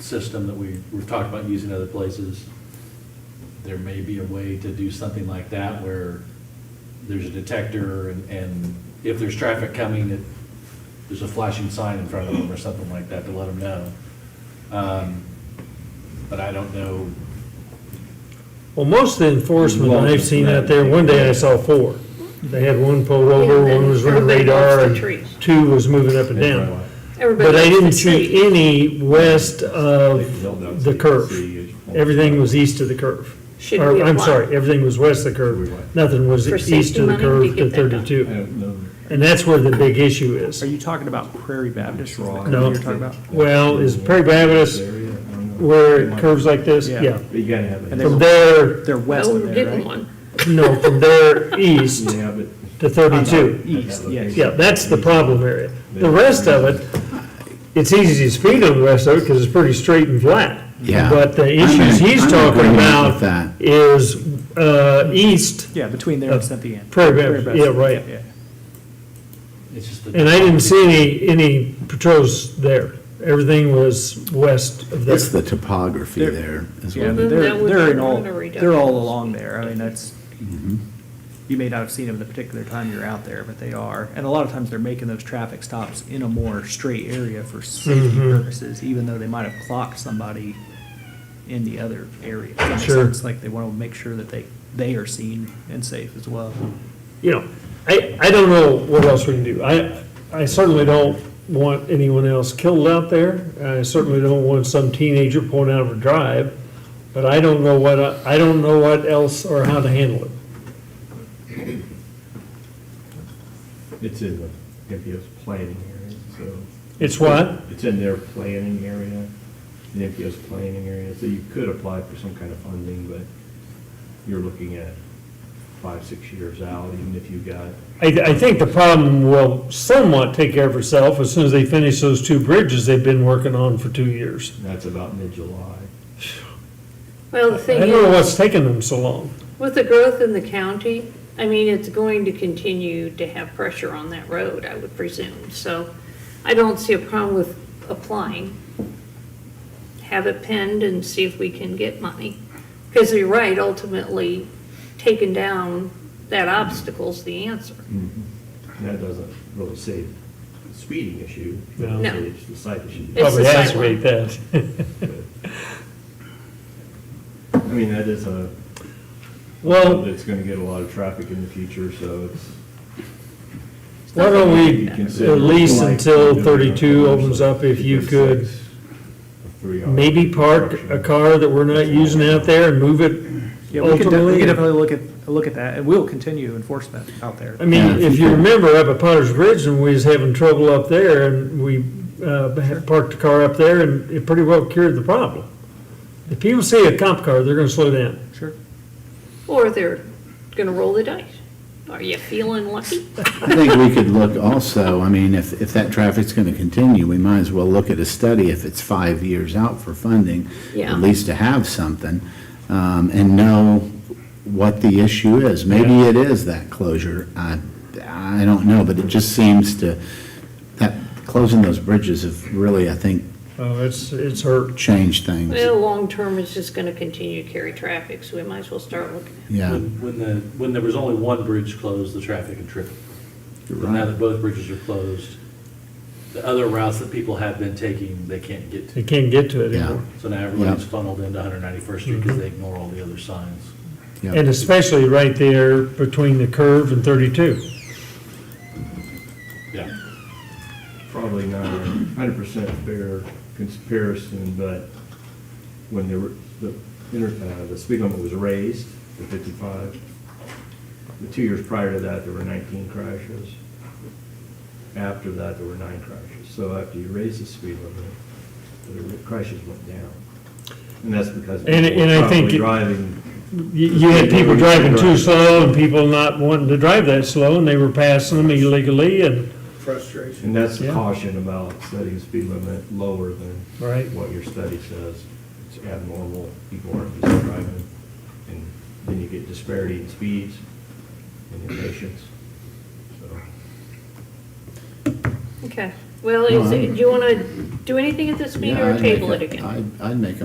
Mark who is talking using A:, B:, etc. A: system that we, we've talked about using other places, there may be a way to do something like that where there's a detector and, and if there's traffic coming, it, there's a flashing sign in front of them or something like that to let them know. Um, But I don't know,
B: Well, most of the enforcement
A: Well,
B: I've seen out there, one day I saw four. They had one pulled over,
C: Yeah,
B: one was running
C: everybody
B: radar,
C: wants the
B: and
C: trees.
B: two was moving up and down. But
C: Everybody
B: I didn't
C: wants to
B: see
C: see.
B: any west of the curve. Everything was east of the curve.
C: Should
B: Or,
C: we
B: I'm
C: apply?
B: sorry, everything was west of the
A: Should we
B: curve.
A: what?
B: Nothing was
C: For
B: east
C: safety
B: of the
C: money to
B: curve to
C: get that done.
A: I
B: 32.
A: don't know.
B: And that's where the big issue is.
D: Are you talking about Prairie Baptist? Is that what
B: No.
D: You're talking about?
B: Well, is Prairie Baptist where it curves like this?
D: Yeah.
B: Yeah.
E: But you gotta have,
D: And
E: it.
D: they
B: From
D: were,
B: there,
D: they're west
C: No,
D: of
C: we
D: there,
C: didn't
D: right?
C: want.
B: no, from there east
E: you have it,
B: to 32.
D: East, yes.
B: Yeah, that's the problem area. The rest of it, it's easy to speed on the rest of it because it's pretty straight and flat.
F: Yeah.
B: But the
F: I'm in-
B: issues he's
F: I'm in
B: talking
F: agreement
B: about
F: with that.
B: is uh, east,
D: Yeah, between there and Cynthia.
B: Oh, Prairie Baptist, yeah, right.
D: Yeah.
A: It's just the-
B: and I didn't see any, any patrols there. Everything was west of there.
F: It's the topography there as
D: Yeah,
F: well.
C: Then
D: but
C: that
D: they're,
C: would
D: they're
C: be
D: in all,
C: runner reductions.
D: they're all along there. I mean, that's,
B: Mm-hmm.
D: you may not have seen them the particular time you're out there, but they are. And a lot of times they're making those traffic stops in a more straight area for safety
B: Mm-hmm.
D: purposes, even though they might have clocked somebody in the other area. If that makes
B: Sure.
D: sense. Like they want to make sure that they, they are seen and safe as well.
B: you know, I, I don't know what else we can do. I, I certainly don't want anyone else killed out there. I certainly don't want some teenager pulling out of a drive, but I don't know what, I I don't know what else or how to handle it.
E: it's in the NPO's planning area, so.
B: It's what?
E: It's in their planning area, the NPO's planning area, so you could apply for some kind of funding, but you're looking at five, six years out, even if you got,
B: I, I think the problem will somewhat take care of itself as soon as they finish those two bridges they've been working on for two years.
E: that's about mid-July.
C: Well, the
B: I
C: thing
B: don't know
C: is,
B: what's taking them so long.
C: with the growth in the county, I mean, it's going to continue to have pressure on that road, I would presume. So I don't see a problem with applying. Have it penned and see if we can get money. Because you're right, ultimately, taking down that obstacle's the answer.
E: And that doesn't really save the speeding issue.
B: No.
C: No.
E: It's the site issue.
C: It's
B: Probably
C: the
B: aspirate that.
E: I mean, that is a,
B: Well,
E: that's gonna get a lot of traffic in the future, so it's.
B: why don't we
E: Consider
B: At least
E: like-
B: until 32 opens up, if you could
E: Three hours.
B: maybe park a car that we're not using out there and move it
D: Yeah, we could de- we could
B: ultimately.
D: definitely look at, look at that and we'll continue enforcement out there.
B: I mean, if you remember up at Potter's Bridge and we was having trouble up there and we uh, had parked the car up there and it pretty well cured the problem. If people see a cop car, they're gonna slow down.
D: Sure.
C: Or they're gonna roll the dice. Are you feeling lucky?
F: I think we could look also, I mean, if, if that traffic's going to continue, we might as well look at a study if it's five years out for funding.
C: Yeah.
F: At least to have something um, and know what the issue is. Maybe it is that closure. I, I don't know, but it just seems to, that, closing those bridges have really, I think,
B: Oh, it's, it's hurt.
F: changed things.
C: Well, long-term, it's just gonna continue to carry traffic, so we might as well start looking.
F: Yeah.
A: When when the, when there was only one bridge closed, the traffic had tripled.
F: You're
A: Now
F: right.
A: that both bridges are closed, the other routes that people have been taking, they can't get to.
B: They can't get to it
F: Yeah.
B: anymore.
A: So now everyone's
F: Yeah. Mm-hmm.
A: funneled into 191st Street because they ignore all the other signs.
F: Yep.
B: And especially right there between the curve and 32.
A: Yeah.
E: Probably not a hundred percent fair comparison, but when the, the, inter- uh, the speed limit was raised to fifty-five, the two years prior to that, there were nineteen crashes. After that, there were nine crashes. So after you raise the speed limit, the crashes went down. And that's because
B: And-
E: people
B: and I
E: were
B: think
E: probably
B: it-
E: driving
B: You you had people driving too slow and people not wanting to drive that slow and they were passing them illegally and,
G: frustration.
E: And that's the
B: Yeah.
E: caution about setting the speed limit lower than
B: Right.
E: what your study says. It's abnormal, people aren't just driving, and then you get disparity in speeds and impatience. So,
C: Okay, Well, is,
F: No, I-
C: it- do you want to do anything at this meeting
F: Yeah,
C: or
F: I'd make
C: table
F: a-
C: it again?
F: I'd, I'd make a